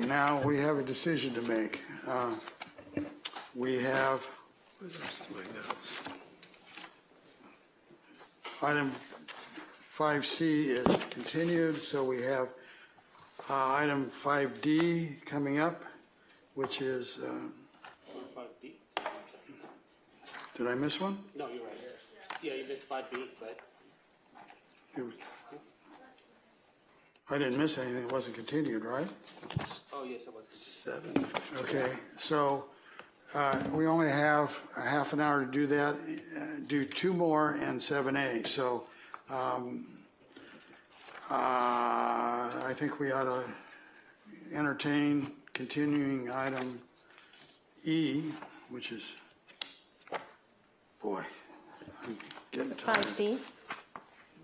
now we have a decision to make. Uh, We have item 5C is continued, so we have uh, item 5D coming up, which is, um, Five B? did I miss one? No, you're right. Yeah, you missed five B, but I didn't miss anything, it wasn't continued, right? oh yes, it was. continued. Okay, so uh, we only have a half an hour to do that, uh, do two more and 7A. So um, uh, I think we ought to entertain continuing item E, which is, boy, I'm getting tired. Five D,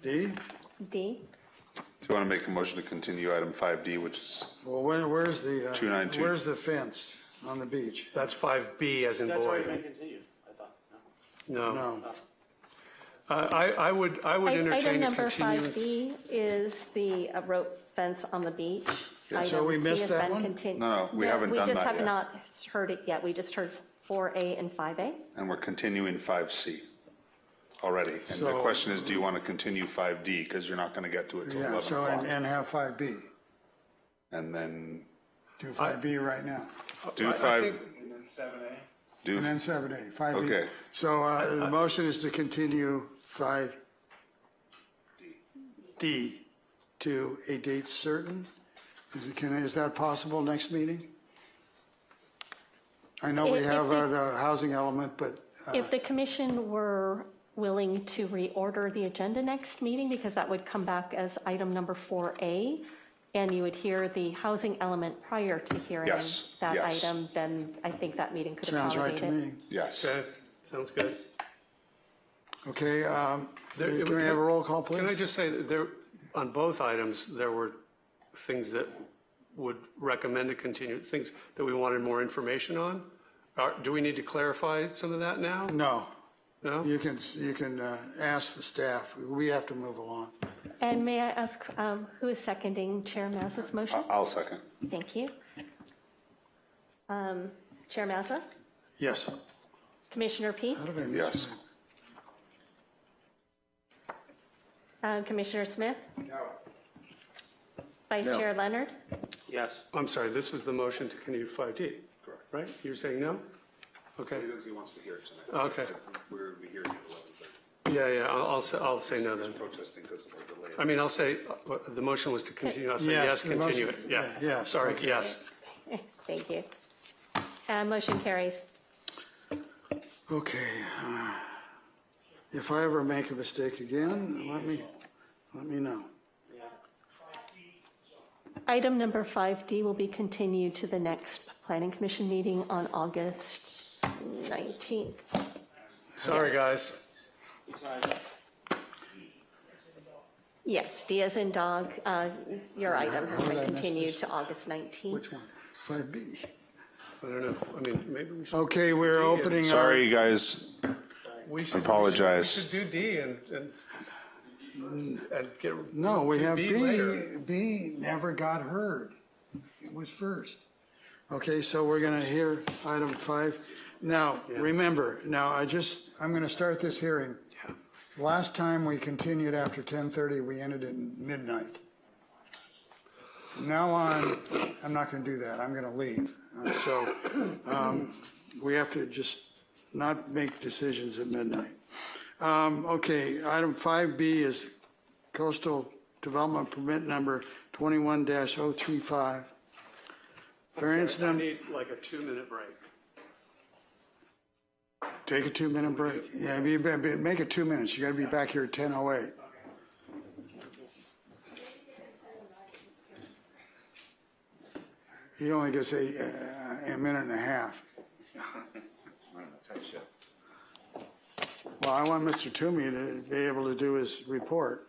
D? D, Do you want to make a motion to continue item 5D, which is, Well, where- where's the, uh, 292. where's the fence on the beach? That's 5B as in That's already boy. been continued, I thought. No. No. No. I, I I would, I would I- Item entertain a number five continuance. B is the uh, rope fence on the beach. so Item we C missed has that been one? continu- No, no, we haven't done We just that have yet. not heard it yet. We just heard four A and five Uh. A. and we're continuing 5C already. And the So- question is, do you want to continue 5D? Because you're not going to get to it till Yeah, 11 so, and o'clock. and have 5B. And then Do 5B right now, do I 5, think- do, and then 7A, 5B. Okay. So uh, the motion is to continue 5D to a date certain? Is it, can, is that possible next meeting? I know we If- if have uh, we- the housing element, but, uh, If the commission were willing to reorder the agenda next meeting, because that would come back as item number four A, and you would hear the housing element prior to hearing Yes, that yes. item, then I think that meeting could accommodate sounds it. right to me. yes. Okay, sounds good. Okay, um, There- can we have a roll call, Can I please? just say, that there, on both items, there were things that would recommend a continuance, things that we wanted more information on? Are- Do we need to clarify some of that now? No, No? you can, s- you can uh, ask the staff, we have to move along. And may I ask, um, who is seconding Chair Mazza's motion? I'll second. Thank you. Um, Chair Mazza, Yes. Commissioner Peak, How did I miss Yes. that? um, Commissioner Smith? Vice Chair Leonard? Yes. I'm sorry, this was the motion to continue 5D, right? You're saying no? Okay, Because he wants to hear it tonight. okay. We're going to be hearing at Yeah, yeah, I'll, I'll say- I'll say no then. protesting because of our delay. I mean, I'll say, uh, the motion was to continue, I'll say Yes, yes, the motion- continue it, yeah. yeah, yes, Sorry, okay. yes. Thank you. Uh, Motion carries. Okay. uh, If I ever make a mistake again, let me, let me know. Item number 5D will be continued to the next Planning Commission meeting on August 19th. Sorry, guys. Yes, Diaz and Dog, uh, your item has How did I been miss continued to August 19th. Which one? 5B. I don't know, I mean, maybe we should, Okay, we're opening our, Sorry, guys. we should. we should- Apologize. We should do D and, and, and get. no, we do have B B. later. B never got heard. It was first. Okay, so we're going to hear item five. Now, remember, now I just, I'm going to start this hearing. Last time we continued after 10:30, we ended at midnight. From now on, I'm not going to do that. I'm going to leave. Uh, So um, we have to just not make decisions at midnight. Um, Okay, item 5B is coastal development permit number 21-035. Variance I number, need like a two-minute break. take a two-minute break. Yeah, be- be- make it two minutes. You got to be back here at 10:08. He only gets a, uh, a minute and a half. Well, I want Mr. Toomey to be able to do his report.